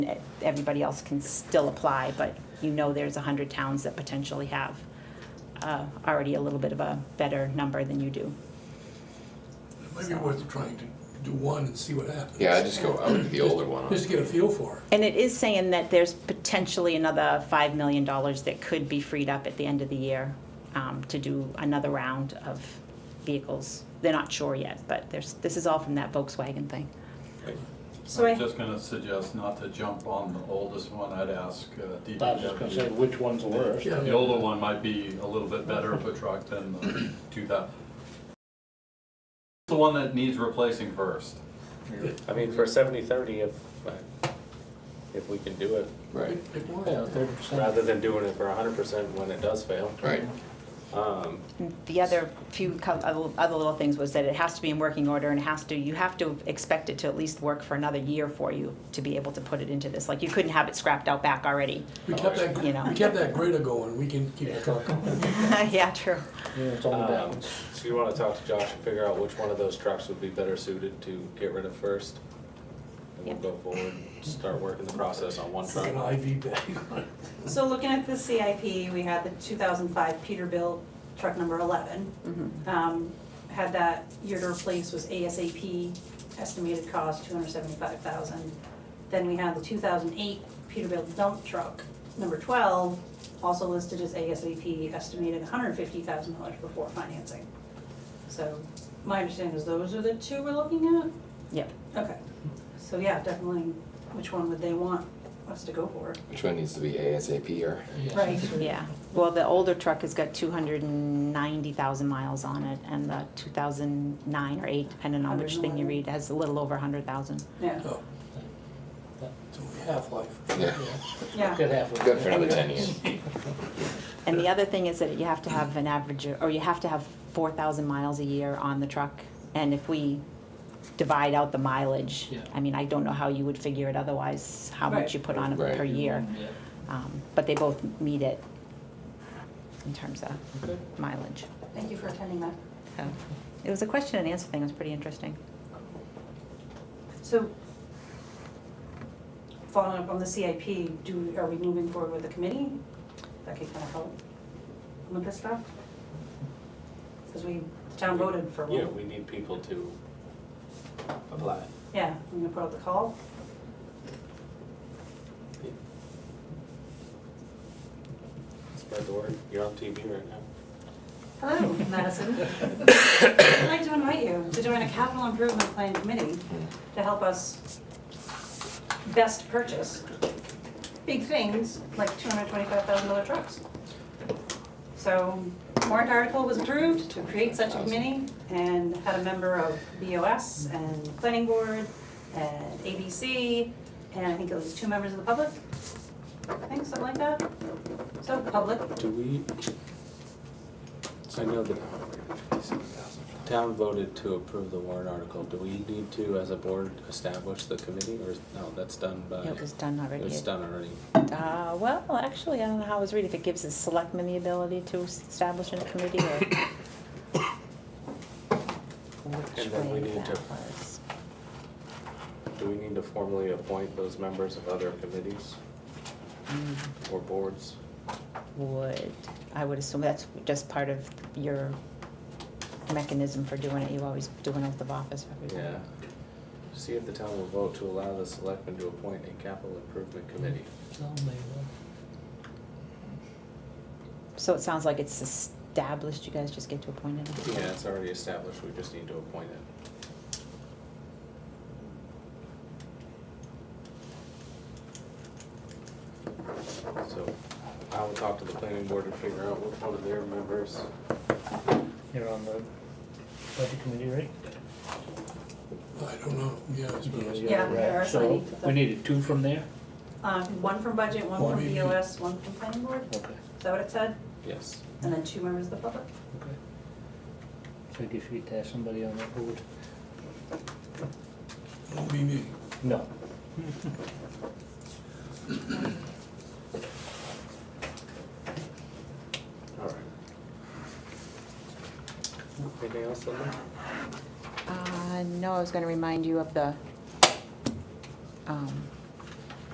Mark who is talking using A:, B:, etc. A: everybody else can still apply, but you know there's 100 towns that potentially have uh, already a little bit of a better number than you do.
B: It might be worth trying to do one and see what happens.
C: Yeah, I just go, I would do the older one.
B: Just to get a feel for it.
A: And it is saying that there's potentially another $5 million that could be freed up at the end of the year um, to do another round of vehicles. They're not sure yet, but there's, this is all from that Volkswagen thing.
D: So
E: I'm
D: I,
E: just gonna suggest not to jump on the oldest one, I'd ask uh,
F: I was just gonna say,
E: DPW.
F: which one's the worst?
B: Yeah.
E: The older one might be a little bit better of a truck than the two thousand. The one that needs replacing first.
G: I mean, for seventy, thirty, if, if we can do it,
C: Right,
B: Pick one.
F: Yeah, thirty percent.
G: rather than doing it for hundred percent when it does fail.
C: right.
G: Um,
A: The other few, co- other other little things was that it has to be in working order and it has to, you have to expect it to at least work for another year for you to be able to put it into this. Like, you couldn't have it scrapped out back already.
B: We kept that,
A: You know.
B: we kept that grader going, we can keep the truck going.
A: Yeah, true.
F: Yeah, it's on the
G: um,
F: balance.
G: So you wanna talk to Josh and figure out which one of those trucks would be better suited to get rid of first? And
A: Yeah.
G: we'll go forward, start working the process on one
B: It's like
G: truck.
B: an IV bag.
D: so looking at the CIP, we had the 2005 Peterbilt truck number 11. Um, Had that year to replace was ASAP, estimated cost 275,000. Then we had the 2008 Peterbilt dump truck number 12, also listed as ASAP, estimated $150,000 before financing. So my understanding is those are the two we're looking at?
A: Yep.
D: Okay, so yeah, definitely, which one would they want us to go for?
C: Which one needs to be ASAP or?
D: Right.
A: Yeah, well, the older truck has got two hundred and ninety thousand miles on it, and the two thousand nine or eight, depending on which thing you
D: 109.
A: read, has a little over a hundred thousand.
D: Yeah,
B: Oh. It's only half-life.
C: Yeah.
D: yeah.
F: Good half of it.
C: Good for another ten years.
A: And the other thing is that you have to have an average, or you have to have four thousand miles a year on the truck, and if we divide out the mileage,
F: Yeah.
A: I mean, I don't know how you would figure it otherwise, how much
D: Right.
A: you put on it
C: Right.
A: per year.
F: Yeah.
A: Um, But they both meet it in terms of mileage.
D: Thank you for attending that.
A: So, it was a question and answer thing, it was pretty interesting.
D: So, following up on the CIP, do, are we moving forward with the committee? That could kind of help with this stuff? Because we, the town voted for
G: Yeah,
D: one.
G: we need people to apply.
D: Yeah, I'm gonna put out the call.
G: Spread the word, you're on TV right now.
D: Hello, Madison. I'd like to invite you to join a capital improvement plan committee to help us best purchase big things like $225,000 trucks. So warrant article was approved to create such a committee and had a member of BOS and Planning Board and ABC, and I think it was two members of the public, I think, something like that. So public,
G: Do we? So I know the town voted to approve the warrant article. Do we need to, as a board, establish the committee or, is- no, that's done by?
A: It was done already.
G: It's done already.
A: Uh, well, actually, I don't know how I was reading, if it gives the selectmen the ability to s- establish a committee or. Which
G: And then we
A: way
G: need
A: that
G: to-
A: was.
G: Do we need to formally appoint those members of other committees or boards?
A: Would, I would assume that's just part of your mechanism for doing it, you always do an oath of office for everyone.
G: Yeah. See if the town will vote to allow the selectmen to appoint a capital improvement committee.
A: So it sounds like it's established, you guys just get to appoint it.
G: Yeah, it's already established, we just need to appoint it. So I will talk to the planning board and figure out which one of their members.
F: You're on the budget committee, right?
B: I don't know, yeah, I suppose.
D: Yeah,
F: right.
D: there are
F: So,
D: some-
F: we needed two from there?
D: Um, one from budget, one
B: One
D: from
B: VP.
D: BOS, one from planning board, is
F: Okay,
D: that what it said?
G: Yes.
D: And then two members of the public.
F: okay. So I guess you get to have somebody on that board?
B: Won't be me.
F: No.
G: All right. Anything else, Linda?
A: Uh, no, I was gonna remind you of the, um,